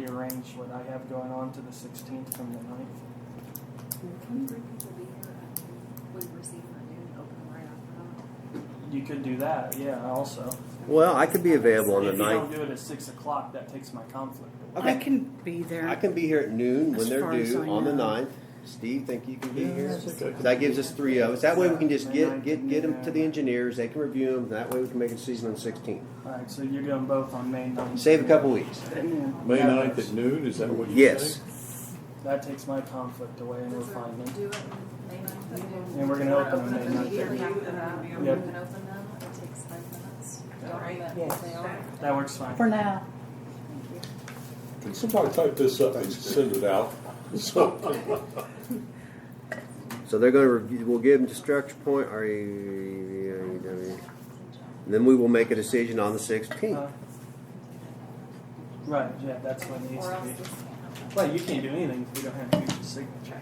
rearrange what I have going on to the sixteenth from the ninth. Can three people be here at Wood Receiver noon, open right after You could do that, yeah, also. that? Well, I could be available on the If you don't ninth. do it at six o'clock, that takes my conflict away. Okay. I can be there. I can be here at noon when As they're far as due I on the know. ninth. Steve, think you can be Yeah, here? that's okay. That gives us three of us. That way we can just Yeah. get, get, get them to the engineers. They can review them. That way we can make a decision on the sixteenth. Alright, so you're doing both on May ninth. Save a couple weeks. May ninth at noon, is that what you say? Yes. That takes my conflict away and we're fine then. Do it in May ninth at noon. And we're gonna open them May Open them 9th. here after that. Yep. We can open them, it takes five minutes. Don't Right. let Yes. they are. That works fine. For now. Can somebody type this up and send it out? So, So they're gonna review, we'll give them to structure point, R E V I E W. And Then we will make a decision on the sixteenth. Uh, Right, yeah, that's what needs Or to else this be. can't happen. Well, you can't do anything if we don't have Gucci's signature.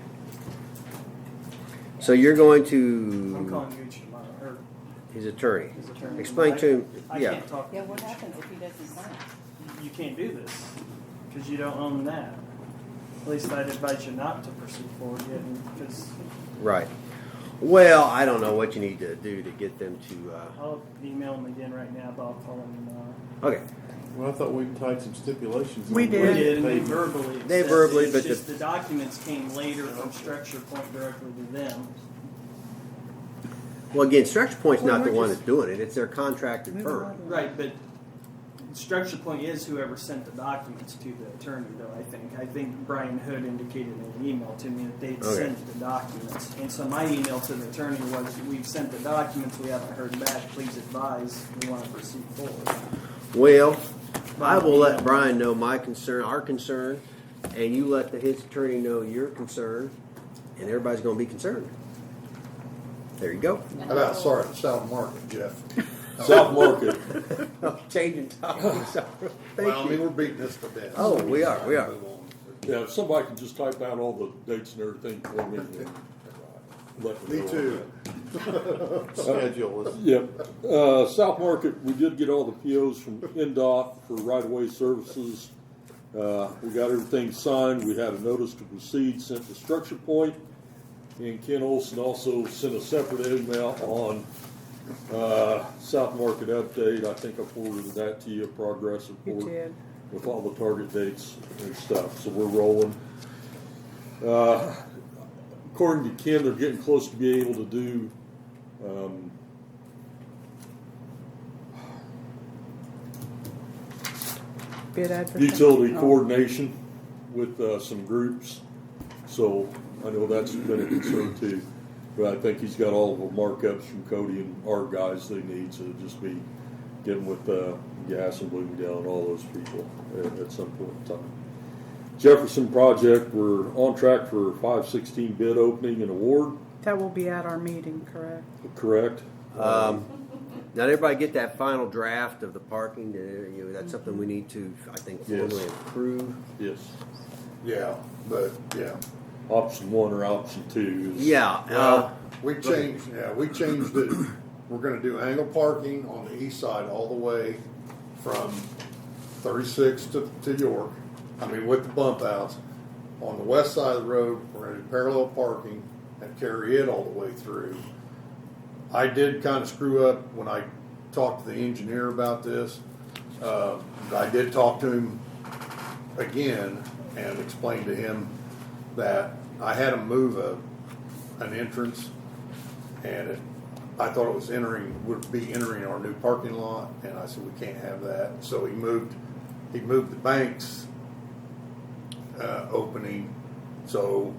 So you're going I'm to calling Gucci tomorrow, or his attorney. his attorney. Explain to him, I yeah. can't talk to Yeah, what Gucci. happens if he doesn't sign? You can't do this, because you don't own that. At least I'd advise you not to proceed forward yet, because Right. Well, I don't know what you need to do to get them to, uh, I'll email him again right now, but I'll call him tomorrow. okay. well, I thought we tied some stipulations. on We what did. We did, and they paid. verbally. They accepted verbally, it. but It's just the documents came later from Structure Point directly to them. Well, again, structure point's Well, not the we're one just- that's doing it. It's their contracted Move firm. along. Right, but structure point is whoever sent the documents to the attorney, though, I think. I think Brian Hood indicated in an email to me that they'd Okay. sent the documents. And so my email to the attorney was, we've sent the documents, we haven't heard back, please advise, we want to proceed forward. Well, I will let Brian know my concern, our concern, and you let the his attorney know your concern, and everybody's gonna be concerned. There you go. And How about, so- sorry, South Market, Jeff? South Market, Changing topics. Well, I Thank mean, you. we're beating this to death. Oh, we are, we are. Move on. yeah, if somebody can just type out all the dates and everything for me. and let Me know. too. Schedule is- Yep. Uh, South Market, we did get all the POs from NDOT for right-of-way services. Uh, we got everything signed. We had a notice to proceed sent to Structure Point. And Ken Olson also sent a separate email on, uh, South Market update. I think I forwarded that to you, progress You report. did. With all the target dates and stuff. So we're rolling. Uh, according to Ken, they're getting close to being able to do, um, Bid advertising. utility Oh. coordination with uh, some groups. So I know that's been a concern too. But I think he's got all the markups from Cody and our guys they need, so it'll just be getting with uh, Gas and Bloomingdale and all those people at, at some point in time. Jefferson project, we're on track for 516 bid opening and award, That will be at our meeting, correct? correct? Um, Not everybody get that final draft of the parking, uh, you know, that's something we need to, I think, Yes. formally approve. Yes. Yeah, but, yeah, Option one or option two is. Yeah, uh, we changed, yeah, we changed it. We're gonna do angle parking on the east side all the way from thirty-six to, to York. I mean, with the bump outs. On the west side of the road, we're gonna do parallel parking and carry it all the way through. I did kind of screw up when I talked to the engineer about this. Uh, I did talk to him again and explained to him that I had him move a, an entrance and it, I thought it was entering, would be entering our new parking lot, and I said, we can't have that. So he moved, he moved the bank's, uh, opening, so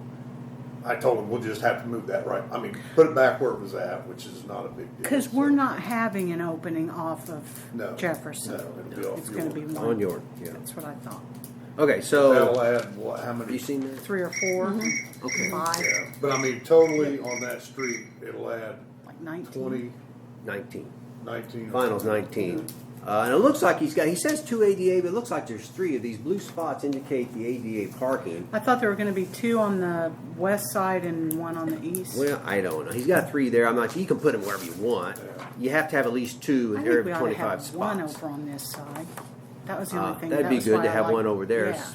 I told him, we'll just have to move that right, I mean, put it back where it was at, which is not a big deal. Because So- we're not having an opening off No, of Jefferson. no, it'll be off It's gonna be York. one. on York, yeah. That's what I thought. Okay, That'll so, add, what, how many? you seen that? Three or four, Mm-hmm. five, Yeah, But I mean, totally on that street, it'll add like nineteen. twenty, Nineteen. nineteen. Finals 19. Uh, and it looks like he's got, he says two ADA, but it looks like there's three of these blue spots indicate the ADA parking. I thought there were gonna be two on the west side and one on the east. Well, I don't know. He's got three there. I'm not, you can put them wherever you want. Yeah. You have to have at least two I in every think we ought to 25 have one spots. over on this side. That was the Uh, only thing. that'd that be was good why to I have liked- one over there. Yeah.